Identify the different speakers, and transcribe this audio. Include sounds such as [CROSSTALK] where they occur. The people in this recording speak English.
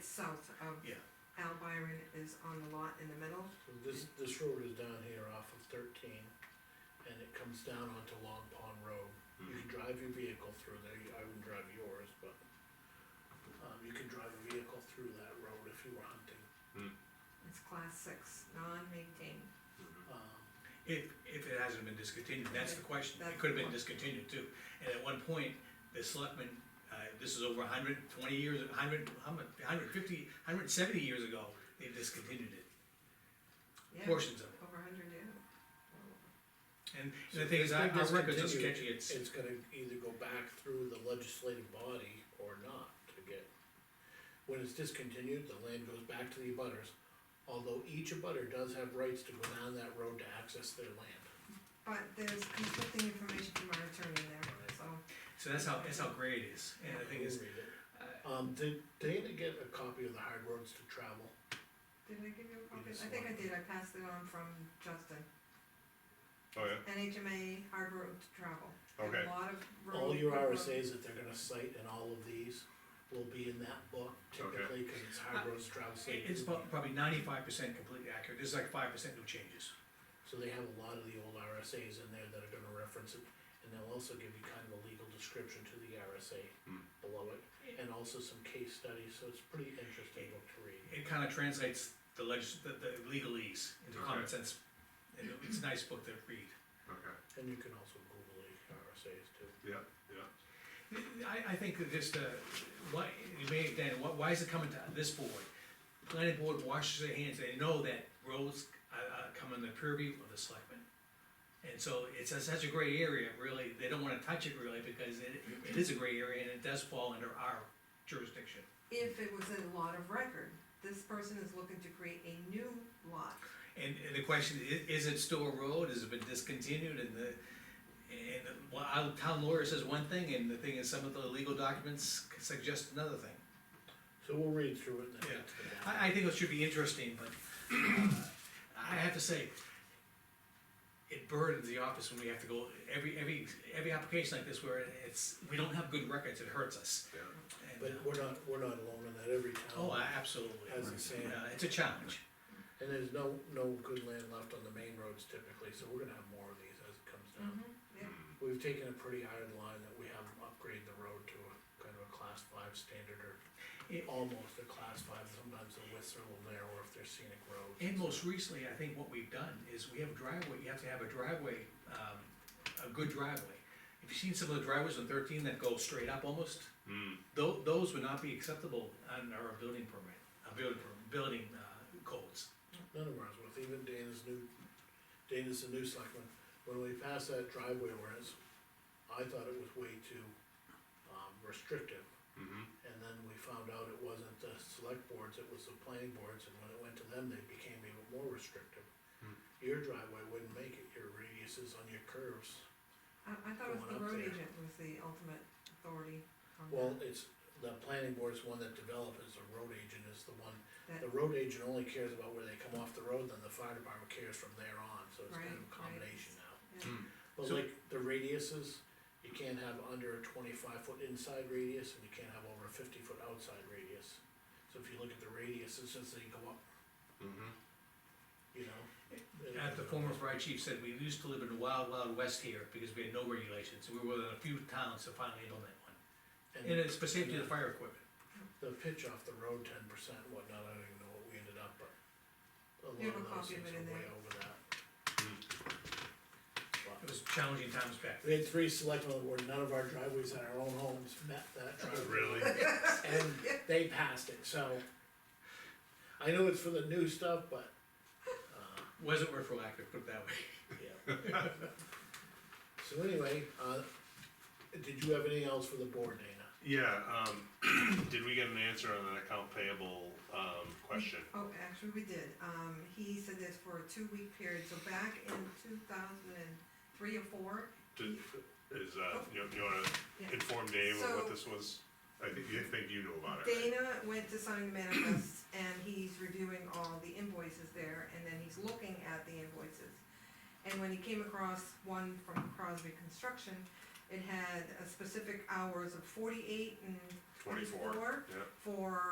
Speaker 1: south of
Speaker 2: Yeah.
Speaker 1: Al Byron is on the lot in the middle.
Speaker 2: So this, this road is down here off of thirteen, and it comes down onto Long Pond Road. You can drive your vehicle through there, I wouldn't drive yours, but, um, you can drive a vehicle through that road if you were hunting.
Speaker 1: It's class six, non-maintained.
Speaker 2: Um,
Speaker 3: If, if it hasn't been discontinued, that's the question,
Speaker 1: That's
Speaker 3: it could have been
Speaker 1: the one.
Speaker 3: discontinued too, and at one point, the selectmen, uh, this is over hundred twenty years, hundred, hundred fifty, hundred seventy years ago, they discontinued it,
Speaker 1: Yeah,
Speaker 3: portions of it.
Speaker 1: Over a hundred, yeah.
Speaker 3: And, and
Speaker 2: so
Speaker 3: the thing is,
Speaker 2: if
Speaker 3: our
Speaker 2: they
Speaker 3: our records are
Speaker 2: discontinue it,
Speaker 3: sketchy, it's,
Speaker 2: It's gonna either go back through the legislative body or not to get. When it's discontinued, the land goes back to the abutters, although each abutter does have rights to go down that road to access their land.
Speaker 1: But there's conflicting information from our attorney there, so.
Speaker 3: so that's how, that's how gray it is, and the thing is,
Speaker 2: Read it. Um, did Dana get a copy of the Hard Roads to Travel?
Speaker 1: Did I give you a copy?
Speaker 2: just
Speaker 1: I think I
Speaker 2: want-
Speaker 1: did, I passed it on from Justin.
Speaker 4: Oh, yeah,
Speaker 1: NHMA Hard Road to Travel. A
Speaker 4: Okay.
Speaker 1: lot of road.
Speaker 2: All your
Speaker 1: road-
Speaker 2: RSA's that they're gonna cite in all of these will be in that book typically, cause it's Hard Roads to Travel. so they
Speaker 3: Uh, it's
Speaker 2: do-
Speaker 3: about probably ninety-five percent completely accurate, there's like five percent no changes.
Speaker 2: So they have a lot of the old RSA's in there that are gonna reference it, and they'll also give you kind of a legal description to the RSA
Speaker 4: Hmm.
Speaker 2: below it, and also some case studies, so it's pretty interesting book to read.
Speaker 3: It kinda translates the legis, the, the legalese into common
Speaker 4: Okay.
Speaker 3: sense, and it's a nice book to read.
Speaker 4: okay,
Speaker 2: And you can also Google the RSA's too.
Speaker 4: yeah, yeah.
Speaker 3: I, I think that just, uh, why, you may, Dan, why, why is it coming to this board? Planning board washes their hands, they know that roads, uh, uh, come in the purview of the selectmen. And so it's a- such a gray area, really, they don't wanna touch it really, because it, it is a gray area and it does fall under our jurisdiction.
Speaker 1: If it was a lot of record, this person is looking to create a new lot.
Speaker 3: And, and the question, i- is it still a road, has it been discontinued, and the, and, the- well, our town lawyer says one thing, and the thing is, some of the legal documents suggest another thing.
Speaker 2: So we'll read through it and then.
Speaker 3: Yeah,
Speaker 2: get to that.
Speaker 3: I, I think it should be interesting, but uh, I have to say, it burdens the office when we have to go, every, every, every application like this where it's, we don't have good records, it hurts us.
Speaker 4: Yeah.
Speaker 3: And,
Speaker 2: But
Speaker 3: uh,
Speaker 2: we're not, we're not alone in that, every town.
Speaker 3: Oh, I- absolutely.
Speaker 2: As the same.
Speaker 3: Yeah, It's a challenge.
Speaker 2: And there's no, no good land left on the main roads typically, so we're gonna have more of these as it comes down.
Speaker 1: Yeah.
Speaker 2: We've taken a pretty hard line that we have upgraded the road to a kind of a class five standard or
Speaker 3: It-
Speaker 2: almost a class five, sometimes the widths are a little narrower if they're scenic roads.
Speaker 3: And most recently, I think what we've done is we have a driveway, you have to have a driveway, um, a good driveway. If you've seen some of the driveways on thirteen that go straight up almost,
Speaker 4: Hmm,
Speaker 3: tho- those would not be acceptable on our building permit, uh, building, per- building, uh, codes.
Speaker 2: None of ours was, even Dana's new, Dana's the new selectman, when we passed that driveway ordinance, I thought it was way too, um, restrictive.
Speaker 4: mhm.
Speaker 2: And then we found out it wasn't the select boards, it was the planning boards, and when it went to them, they became even more restrictive. Your driveway wouldn't make it, your radiuses on your curves,
Speaker 1: I, I thought it was
Speaker 2: Going
Speaker 1: the
Speaker 2: up
Speaker 1: road
Speaker 2: there.
Speaker 1: agent was the ultimate authority on that.
Speaker 2: well, it's, the planning board's one that develops, the road agent is the one.
Speaker 1: That-
Speaker 2: The road agent only cares about where they come off the road, then the fire department cares from there on, so it's kind of
Speaker 1: Right,
Speaker 2: a
Speaker 1: right.
Speaker 2: combination now.
Speaker 1: yeah.
Speaker 2: But
Speaker 3: So-
Speaker 2: like the radiuses, you can't have under a twenty-five foot inside radius and you can't have over a fifty foot outside radius. So if you look at the radiuses, since they go up.
Speaker 4: mm-hmm,
Speaker 2: You know?
Speaker 3: At the former fire chief said, we used to live in the wild, wild west here because we had no regulations, and we were one of the few towns to finally implement one. And
Speaker 2: And
Speaker 3: it's specific to the fire equipment.
Speaker 2: the pitch off the road, ten percent, whatnot, I don't even know what we ended up, but. A
Speaker 1: You have a
Speaker 2: lot of those
Speaker 1: copy of it
Speaker 2: things
Speaker 1: in
Speaker 2: are way
Speaker 1: there.
Speaker 2: over that.
Speaker 3: It
Speaker 2: But
Speaker 3: was challenging times back then.
Speaker 2: We had three selectmen where none of our driveways in our own homes met
Speaker 3: [LAUGHS]
Speaker 2: that driveway.
Speaker 4: Really?
Speaker 2: and they passed it, so. I know it's for the new stuff, but, uh,
Speaker 3: Wasn't retroactive, put it that way. [LAUGHS]
Speaker 2: yeah. So anyway, uh, did you have anything else for the board, Dana?
Speaker 4: Yeah, um, [CLEARS THROAT] did we get an answer on that account payable, um, question?
Speaker 1: Oh, actually, we did, um, he said this for a two-week period, so back in two thousand and three or four,
Speaker 4: Did, is, uh, you, you wanna
Speaker 1: Oh. Yeah.
Speaker 4: inform Dave of
Speaker 1: So-
Speaker 4: what this was? I think, you think you knew about it, right?
Speaker 1: Dana went to sign the
Speaker 4: [CLEARS THROAT]
Speaker 1: manifests, and he's reviewing all the invoices there, and then he's looking at the invoices. And when he came across one from Crosby Construction, it had a specific hours of forty-eight and
Speaker 4: Twenty-four,
Speaker 1: twenty-four
Speaker 4: yeah.
Speaker 1: for